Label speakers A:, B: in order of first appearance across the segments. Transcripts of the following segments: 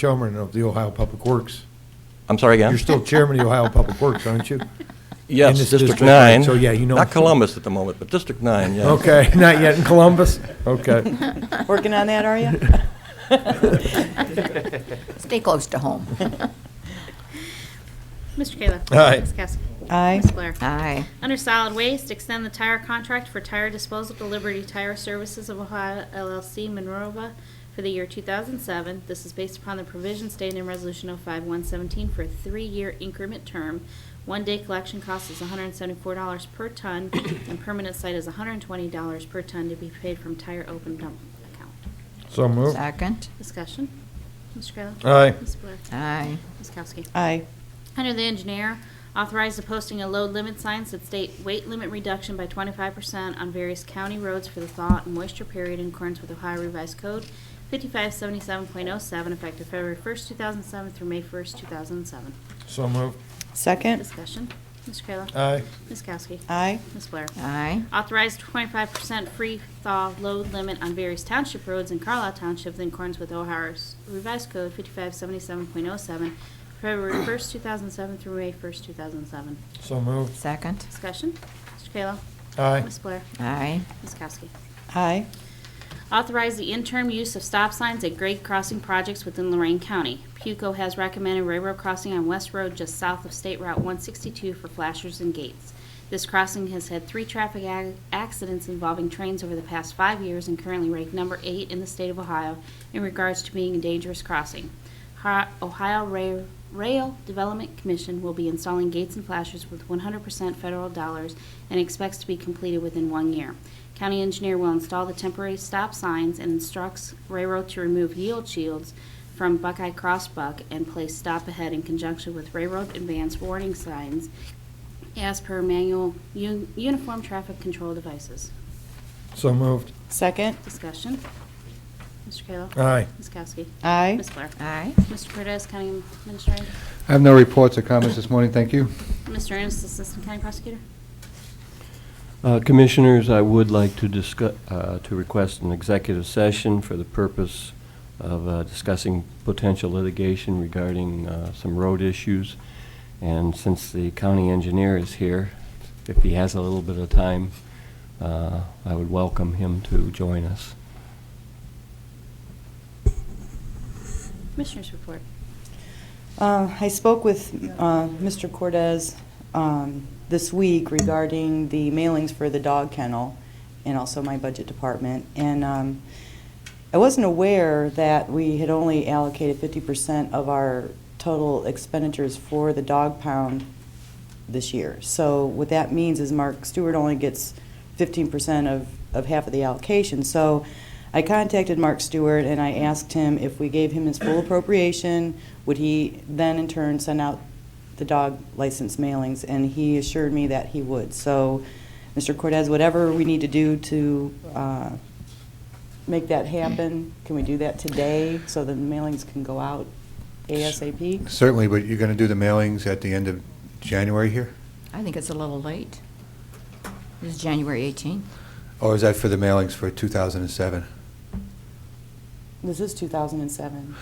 A: chairman of the Ohio Public Works.
B: I'm sorry again?
A: You're still chairman of the Ohio Public Works, aren't you? in
B: Yes,
A: this
B: District
A: district, right,
B: 9.
A: so yeah, you know-
B: Not Columbus at the moment, but District 9, yeah.
A: Okay, not yet in Columbus? Okay.
C: Working on that, are you?
D: Stay close to home.
E: Mr. Kayla.
A: Aye.
E: Ms. Kowski.
C: Aye.
E: Ms. Blair.
D: Aye.
E: Under solid waste, extend the tire contract for tire disposal to Liberty Tire Services of Ohio LLC Monrovia for the year 2007. This is based upon the provision stated in Resolution 05117 for a three-year increment term. One-day collection cost is $174 per ton, and permanent site is $120 per ton to be paid from tire open dump account.
A: So
C: Oh.
A: moved.
D: Second.
E: Discussion. Mr. Kayla.
A: Aye.
E: Ms. Blair.
D: Aye.
E: Ms. Kowski.
C: Aye.
E: Under the engineer, authorize the posting of load limit signs that state weight limit reduction by 25% on various county roads for the thaw and moisture period in accordance with Ohio Revised Code 5577.07, effective February 1st, 2007 through May 1st, 2007.
A: So moved.
C: Second?
E: Discussion. Mr. Kayla.
A: Aye.
E: Ms. Kowski.
C: Aye.
E: Ms. Blair.
D: Aye.
E: Authorized 25% free thaw load limit on various township roads in Carlisle Township in accordance with Ohio's Revised Code 5577.07, February 1st, 2007 through May 1st, 2007.
A: So moved.
D: Second.
E: Discussion. Mr. Kayla.
A: Aye.
E: Ms. Blair.
D: Aye.
E: Ms. Kowski.
C: Aye.
E: Authorize the interim use of stop signs at grade crossing projects within Lorraine County. PUCO has recommended railroad crossing on West Road just south of State Route 162 for flashers and gates. This crossing has had three traffic ac- accidents involving trains over the past five years and currently ranked number eight in the state of Ohio in regards to being a dangerous crossing. Hi- Ohio Ra- Rail Development Commission will be installing gates and flashers with 100% federal dollars and expects to be completed within one year. County engineer will install the temporary stop signs and instructs railroad to remove yield shields from Buckeye Crossbuck and place stop ahead in conjunction with railroad advance warning signs as per manual un- uniform traffic control devices.
A: So moved.
C: Second?
E: Discussion. Mr. Kayla.
A: Aye.
E: Ms. Kowski.
C: Aye.
E: Ms. Blair.
D: Aye.
E: Mr. Cortez, County Administrator.
F: I have no reports or comments this morning, thank you.
E: Mr. Ennis, Assistant County Prosecutor.
G: Uh, Commissioners, I would like to discuss, to request an executive session for the purpose of uh, discussing potential litigation regarding uh, some road issues. And since the county engineer is here, if he has a little bit of time, uh, I would welcome him to join us.
E: Commissioners report.
C: Uh, I spoke with uh, Mr. Cortez um, this week regarding the mailings for the dog kennel and also my budget department. And um, I wasn't aware that we had only allocated 50% of our total expenditures for the dog pound this year. So what that means is Mark Stewart only gets 15% of, of half of the allocation. So I contacted Mark Stewart and I asked him if we gave him his full appropriation, would he then in turn send out the dog license mailings? And he assured me that he would. So, Mr. Cortez, whatever we need to do to uh, make that happen, can we do that today so the mailings can go out ASAP?
F: Certainly, but you're going to do the mailings at the end of January here?
D: I think it's a little late. This is January 18th.
F: Or is that for the mailings for 2007?
C: This is 2007.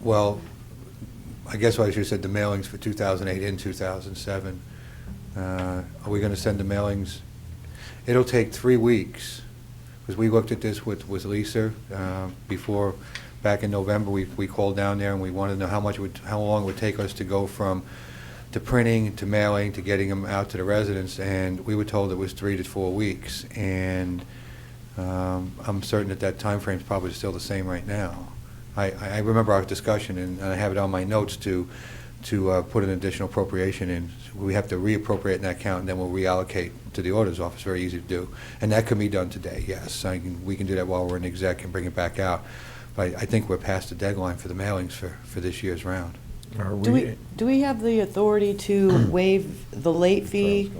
F: Well, I guess what I should have said, the mailings for 2008 and 2007. Uh, Are we going to send the mailings? It'll take three weeks, because we looked at this with, with Lisa uh, before, back in November, we, we called down there and we wanted to know how much, it would how long it would take us to go from, to printing, to mailing, to getting them out to the residents, and we were told it was three to four weeks. And um, I'm certain that that time frame is probably still the same right now. I, I I remember our discussion, and and I have it on my notes to, to uh, put an additional appropriation in. We have to reappropriate in that account, and then we'll reallocate to the auditor's office, very easy to do. And that can be done today, yes. I can, we can do that while we're in exec and bring it back out. But I I think we're past the deadline for the mailings for, for this year's round.
A: Are
C: Do we, do we have the authority to waive the late fee?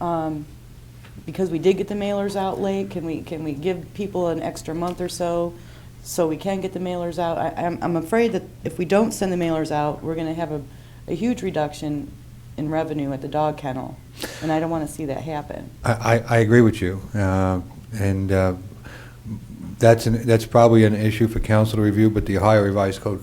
C: um, Because we did get the mailers out late, can we, can we give people an extra month or so, so we can get the mailers out? I, I'm, I'm afraid that if we don't send the mailers out, we're gonna have a, a huge reduction in revenue at the dog kennel, and I don't wanna see that happen.
F: I, I I agree with you. uh, And uh, That's, an- that's probably an issue for council to review, but the Ohio Revised Code